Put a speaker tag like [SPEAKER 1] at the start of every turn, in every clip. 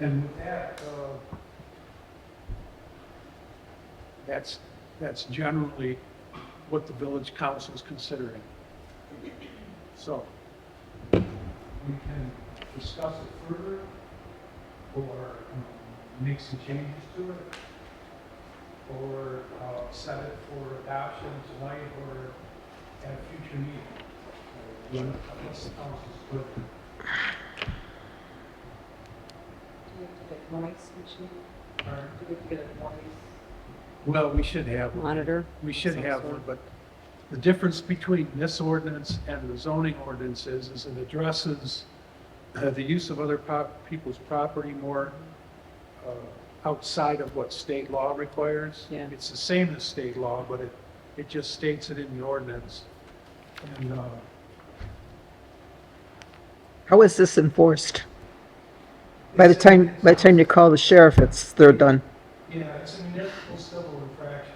[SPEAKER 1] And with that, uh, that's, that's generally what the village council is considering. So we can discuss it further or um, make some changes to it or uh, set it for adoption tonight or at a future meeting. Uh, Unless the council's good.
[SPEAKER 2] Do we have to get noise machine?
[SPEAKER 1] Or-
[SPEAKER 2] Do we have to get a noise
[SPEAKER 1] Well, we should have one.
[SPEAKER 2] monitor?
[SPEAKER 1] We should
[SPEAKER 2] Some
[SPEAKER 1] have
[SPEAKER 2] sort.
[SPEAKER 1] one, but the difference between this ordinance and the zoning ordinance is, is it addresses uh, the use of other pop- people's property more uh, outside of what state law requires.
[SPEAKER 2] Yeah.
[SPEAKER 1] It's the same as state law, but it, it just states it in the ordinance. And uh,
[SPEAKER 3] How is this enforced? By the time, by the time you call the sheriff, it's, they're done.
[SPEAKER 1] Yeah, it's a municipal civil infraction.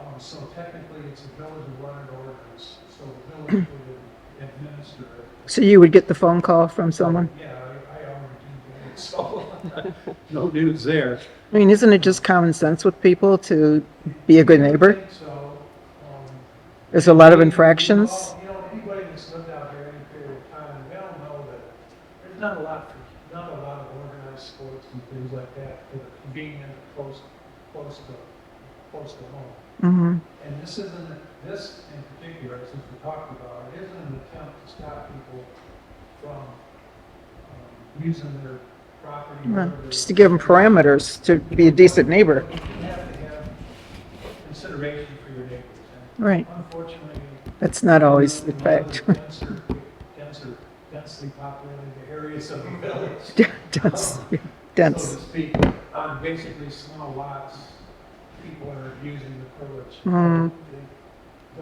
[SPEAKER 1] Um, so technically, it's a village-run ordinance, so the village would administer it.
[SPEAKER 3] So you would get the phone call from someone?
[SPEAKER 1] Yeah, I, I already do that, so. uh, No news there.
[SPEAKER 3] I mean, isn't it just common sense with people to be a good neighbor?
[SPEAKER 1] So, um.
[SPEAKER 3] There's a lot of infractions.
[SPEAKER 1] You know, anybody that's lived out there any period of time, they all know that there's not a lot, for- not a lot of organized sports and things like that that are convenient, close, close to, close to home.
[SPEAKER 3] hmm
[SPEAKER 1] And this isn't, this in particular, since we're talking about it, isn't an attempt to stop people from um, using their property. or their-
[SPEAKER 3] Just to give them parameters to be a decent neighbor.
[SPEAKER 1] You have to have consideration for your neighbors.
[SPEAKER 3] Right.
[SPEAKER 1] And Unfortunately.
[SPEAKER 3] That's not always the
[SPEAKER 1] in a lot of
[SPEAKER 3] fact.
[SPEAKER 1] the denser- Denser, densely populated areas of the village.
[SPEAKER 3] dense, yeah,
[SPEAKER 1] So
[SPEAKER 3] dense.
[SPEAKER 1] to speak, on basically small lots, people are abusing the privilege.
[SPEAKER 3] Mm.
[SPEAKER 1] They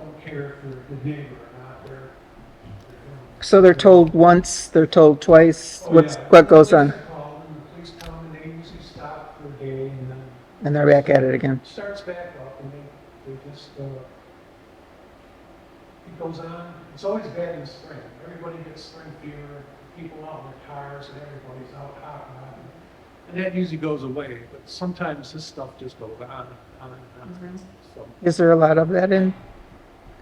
[SPEAKER 1] Don't care if they're a good neighbor or not, they're. they're
[SPEAKER 3] So they're told once, they're told twice,
[SPEAKER 1] doing-
[SPEAKER 3] what's,
[SPEAKER 1] Oh, yeah.
[SPEAKER 3] what goes on,
[SPEAKER 1] Police are called, and the Oh, Police come and they usually stop for a day and then
[SPEAKER 3] and they're back at it again.
[SPEAKER 1] it starts back up and they, they just, uh, it goes on. It's always bad in the spring. Everybody gets spring fever, people out in their cars and everybody's out hopping on. And that usually goes away, but sometimes this stuff just goes on and on and on. So,
[SPEAKER 3] Is there a lot of that in,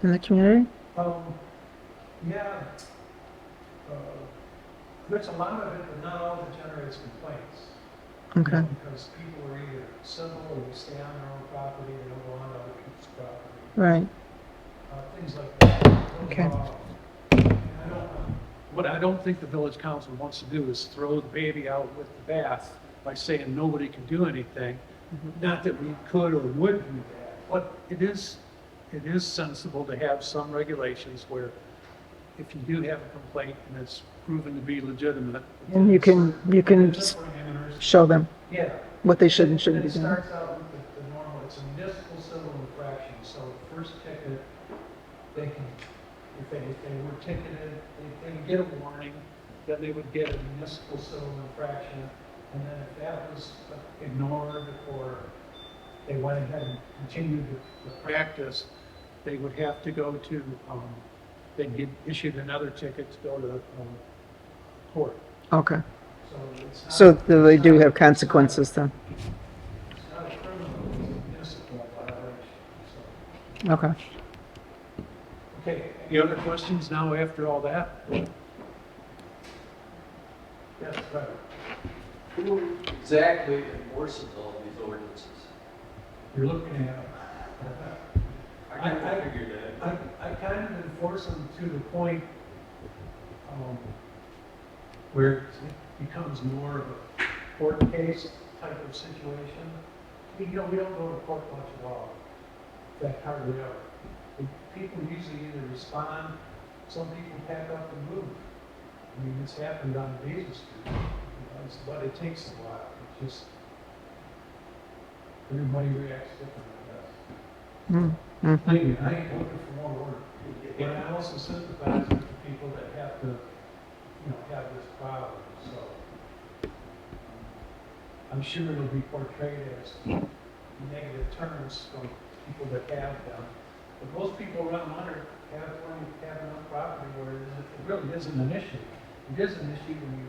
[SPEAKER 3] in the community?
[SPEAKER 1] um, yeah, uh, there's a lot of it, but not all that generates complaints.
[SPEAKER 3] Okay.
[SPEAKER 1] Because people are either civil or they stay on their own property, they don't go on other people's property.
[SPEAKER 3] Right.
[SPEAKER 1] uh, things like that.
[SPEAKER 3] Okay.
[SPEAKER 1] Uh, I don't- What I don't think the village council wants to do is throw the baby out with the bath by saying nobody can do anything.
[SPEAKER 3] Mm-hmm.
[SPEAKER 1] Not that we could or would do that, but it is, it is sensible to have some regulations where if you do have a complaint and it's proven to be legitimate.
[SPEAKER 3] And you can, you can
[SPEAKER 1] There's some parameters.
[SPEAKER 3] show them
[SPEAKER 1] Yeah.
[SPEAKER 3] what they should and shouldn't be
[SPEAKER 1] It
[SPEAKER 3] doing.
[SPEAKER 1] starts out with the- the normal, it's a municipal civil infraction, so the first ticket, they can, if they, if they were ticketed, they, they would get a warning, then they would get a municipal civil infraction, and then if that was ignored or they went ahead and continued the, the practice, they would have to go to, um, they'd get issued another ticket to go to, um, court,
[SPEAKER 3] Okay.
[SPEAKER 1] so it's not.
[SPEAKER 3] So they do have
[SPEAKER 1] it's not- it's not-
[SPEAKER 3] consequences then.
[SPEAKER 1] it's not a criminal, it's a municipal violation, so.
[SPEAKER 3] Okay.
[SPEAKER 1] Okay, any other questions now after all that? Yes, right.
[SPEAKER 4] Who exactly enforces all these ordinances?
[SPEAKER 1] You're looking at, I- I-
[SPEAKER 4] figured
[SPEAKER 1] I, I kind of enforce them to the point, um, where it becomes more of a court case type of situation. We, you know, we don't go to court much at all, that hardly ever. And People usually either respond, some people pack up and move. I mean, it's happened on Basin Street, you know, it's- but it takes a while, it just, everybody reacts differently, I guess.
[SPEAKER 3] Mm.
[SPEAKER 1] I ain't looking for more work. But I also sympathize with the people that have to, you know, have this problem, so. I'm sure it'll be portrayed as negative terms from people that have them. But most people around Leonard have, have enough property where it isn't- it really isn't an issue. It is an issue when you